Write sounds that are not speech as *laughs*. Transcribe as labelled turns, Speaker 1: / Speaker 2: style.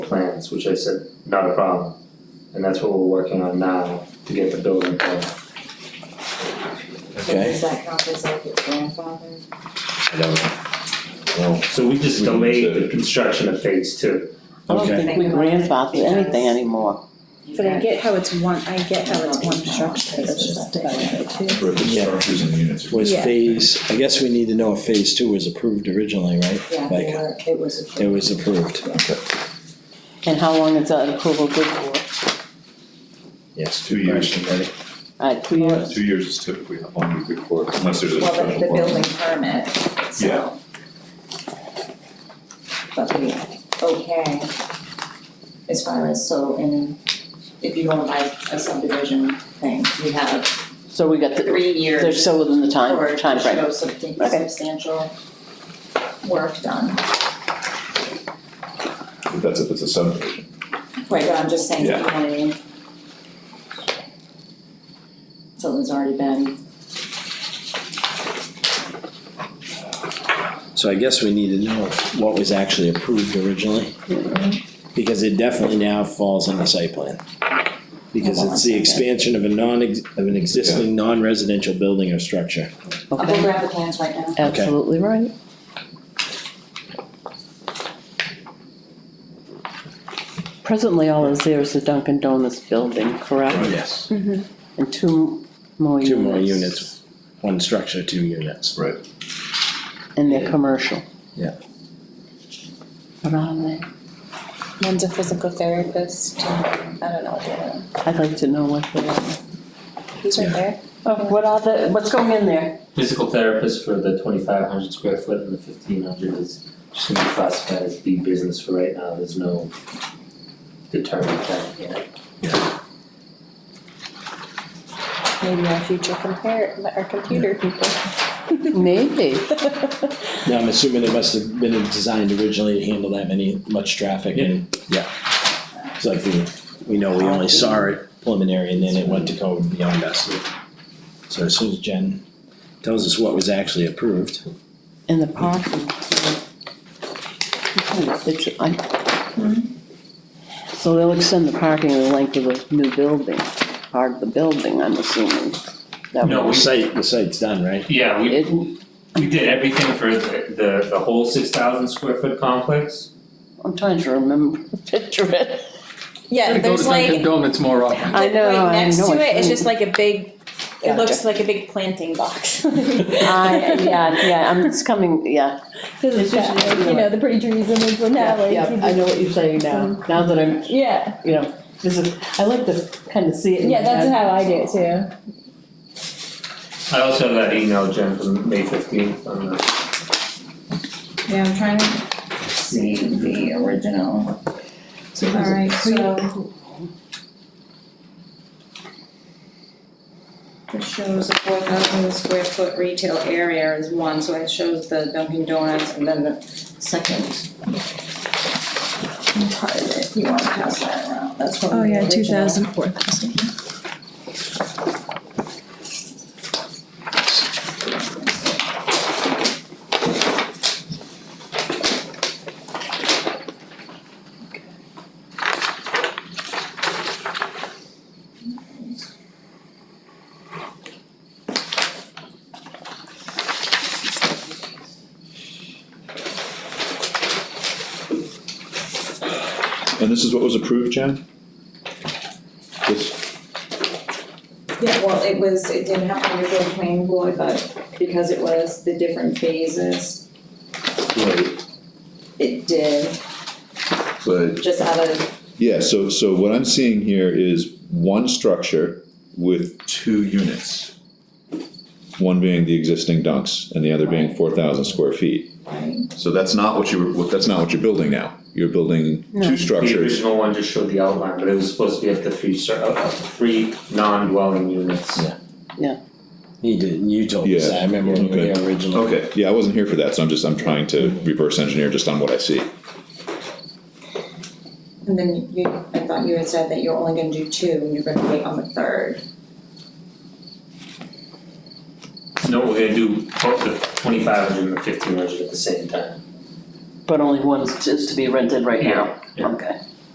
Speaker 1: plans, which I said, not a problem. And that's what we're working on now to get the building permit.
Speaker 2: So
Speaker 3: okay?
Speaker 2: does that count as like your grandfather?
Speaker 3: I don't know.
Speaker 1: So we just
Speaker 3: We need
Speaker 1: delayed the
Speaker 3: to-
Speaker 1: construction of phase two.
Speaker 4: I don't
Speaker 3: Okay.
Speaker 4: think we grandfather anything anymore.
Speaker 5: But I get how it's one, I get how it's one structure, but it's just about it too.
Speaker 6: For the
Speaker 3: Yeah.
Speaker 6: structures and units.
Speaker 3: Was
Speaker 5: Yeah.
Speaker 3: phase, I guess we need to know if phase two was approved originally, right?
Speaker 2: Yeah, they
Speaker 3: Like,
Speaker 2: were, it was.
Speaker 3: it was approved,
Speaker 4: And how long is that approval good for?
Speaker 3: yes.
Speaker 6: Two
Speaker 3: good
Speaker 6: years.
Speaker 3: question, buddy.
Speaker 4: Uh, two years?
Speaker 6: Two years is typically how long you could work, unless there's a
Speaker 2: Well, the,
Speaker 6: special.
Speaker 2: the building
Speaker 6: permit.
Speaker 2: permit, so.
Speaker 6: Yeah.
Speaker 2: But we, okay, as far as, so, and if you wanna buy a subdivision thing, we have
Speaker 4: So we got the,
Speaker 2: three years.
Speaker 4: they're still within the time,
Speaker 2: Or to
Speaker 4: timeframe.
Speaker 2: show something
Speaker 4: Okay.
Speaker 2: substantial work done.
Speaker 6: But That's if it's a subdivision.
Speaker 2: Right, but I'm just saying, you know what I mean? Something's already been,
Speaker 3: So I guess we need to know what was actually approved originally. Because it definitely now falls under site plan. Because
Speaker 2: Hold on
Speaker 3: it's
Speaker 2: a
Speaker 3: the
Speaker 2: second.
Speaker 3: expansion of a non, of an existing non-residential building or structure.
Speaker 2: I'll go
Speaker 4: Okay,
Speaker 2: grab the plans right now.
Speaker 4: absolutely right. Presently, all is there is the Dunkin' Donuts building, correct?
Speaker 3: Yes.
Speaker 4: And two more units.
Speaker 3: Two more units, one structure, two units.
Speaker 6: Right.
Speaker 4: And they're commercial.
Speaker 3: Yeah.
Speaker 4: What are they?
Speaker 5: One's a physical therapist, and I don't know what the other one,
Speaker 4: I'd like to know what they are.
Speaker 5: he's right there.
Speaker 4: Oh, what are the, what's going in there?
Speaker 1: Physical therapist for the twenty-five hundred square foot and the fifteen hundred is just gonna be classified as B business for right now, there's no determined plan yet.
Speaker 5: Maybe our future compare, our computer people.
Speaker 4: Maybe.
Speaker 3: Now, I'm assuming it must have been designed originally to handle that many, much traffic and, yeah. It's like we, we know we only saw it preliminary and then it went to code beyond us. So as soon as Jen tells us what was actually approved,
Speaker 4: In the parking. It's, I. hmm? So they'll extend the parking the length of the new building, part of the building, I'm assuming. That
Speaker 3: the
Speaker 1: No,
Speaker 4: would-
Speaker 1: we-
Speaker 3: site, the site's done, right?
Speaker 1: Yeah,
Speaker 4: It-
Speaker 1: we did everything for the, the, the whole six thousand square foot complex.
Speaker 4: I'm trying to remember, *laughs* picture it.
Speaker 5: Yeah, there's like,
Speaker 7: Donuts more often.
Speaker 4: I
Speaker 5: like
Speaker 4: know,
Speaker 5: right
Speaker 4: I
Speaker 5: next
Speaker 4: know.
Speaker 5: to it, it's
Speaker 4: shouldn't.
Speaker 5: just like a big, it
Speaker 4: Gotcha.
Speaker 5: looks like a big planting box. *laughs*
Speaker 4: I, yeah, yeah, I'm, it's coming, yeah.
Speaker 5: Cause *laughs*
Speaker 4: It's
Speaker 5: it's got,
Speaker 4: just-
Speaker 5: like, you know, the pretty trees and it's an alley.
Speaker 4: Yeah, I know what you're saying now,
Speaker 5: Mm-hmm.
Speaker 4: now that I'm,
Speaker 5: Yeah,
Speaker 4: you know, this is, I like to kind of see it in my
Speaker 5: yeah, that's
Speaker 4: head.
Speaker 5: how I do it too.
Speaker 1: I also have that email, Jen, from May fifteenth on the.
Speaker 2: yeah, I'm trying to see the original. Alright, so. This shows a four thousand square foot retail area is one, so it shows the Dunkin' Donuts and then the second. Part of it, you wanna pass that around, that's what the original.
Speaker 5: four Oh, thousand.
Speaker 6: And this is what was approved, Jen? This,
Speaker 2: Yeah, well, it was, it didn't have to go to the planning board, but because it was the different phases,
Speaker 6: right,
Speaker 2: it did,
Speaker 6: but,
Speaker 2: just out of,
Speaker 6: uh, yeah, so, so what I'm seeing here is one structure with two units. One being the existing dunks and the other being
Speaker 2: Right.
Speaker 6: four thousand square feet.
Speaker 2: right?
Speaker 6: So that's not what you were, that's not what you're building now. You're building
Speaker 4: No.
Speaker 6: two
Speaker 1: The
Speaker 6: structures.
Speaker 1: original one just showed the outline, but it was supposed to be up to three, cer- up to three non-dwelling units.
Speaker 3: Yeah. You did, you told us, that. I remember when we were
Speaker 6: Okay.
Speaker 3: here originally.
Speaker 6: Okay, yeah, Oh, I wasn't here for that, so I'm just, I'm trying to reverse engineer just on what I see.
Speaker 2: And then you, I thought you had said that you're only gonna do two and you're gonna wait on the third.
Speaker 1: No, we're gonna do both the twenty-five hundred and the fifteen hundred at the same time.
Speaker 4: But only one is to be rented right now,
Speaker 1: Yeah.
Speaker 4: okay.